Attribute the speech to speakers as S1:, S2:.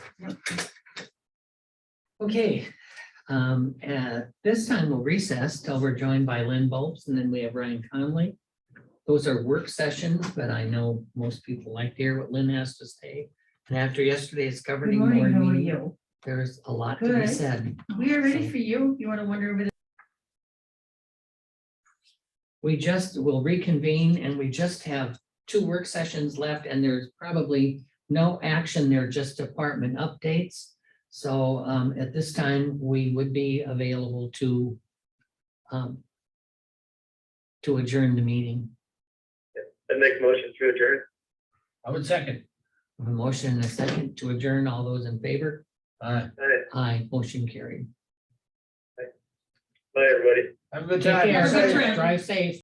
S1: Okay, um, at this time we'll recess till we're joined by Lynn Bulbs and then we have Ryan Conley. Those are work sessions, but I know most people like to hear what Lynn has to say. And after yesterday's
S2: Good
S1: governing
S2: morning,
S1: board
S2: how are
S1: meeting,
S2: you?
S1: there's a lot to be
S2: Good.
S1: said.
S2: We are ready for you. You want to wander over the
S1: We just will reconvene and we just have two work sessions left and there's probably no action there, just department updates. So um, at this time, we would be available to um, to adjourn the meeting.
S3: I'd make a motion to adjourn.
S4: I would second.
S1: A motion and a second to adjourn. All those in favor?
S4: Aye.
S3: Alright,
S1: Aye, motion carried.
S3: bye, everybody.
S4: Have a good
S1: Take
S4: time.
S1: care.
S2: Have a good trip.
S1: Drive safe.